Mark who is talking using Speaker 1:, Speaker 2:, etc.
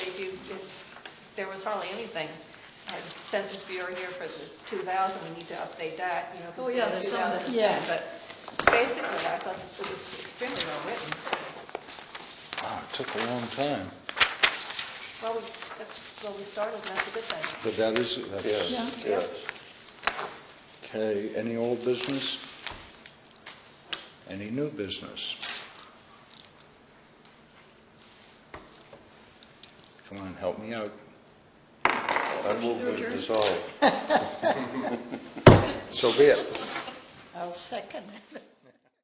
Speaker 1: there was hardly anything. Uh, Census Bureau here for the 2000, we need to update that, you know. 'cause
Speaker 2: Oh, yeah,
Speaker 1: we have
Speaker 2: there's some that-
Speaker 1: 2000,
Speaker 2: yeah.
Speaker 1: But basically, I thought it was extremely well written.
Speaker 3: Wow, Oh, it took a long time.
Speaker 1: Well, we, that's, well, we started, and that's a good thing.
Speaker 3: But that is, that's,
Speaker 2: Yeah.
Speaker 4: Yes, yes.
Speaker 3: okay, any old business? Any new business? Come on, help me out.
Speaker 4: I move we dissolve. So be it.
Speaker 2: I'll second it.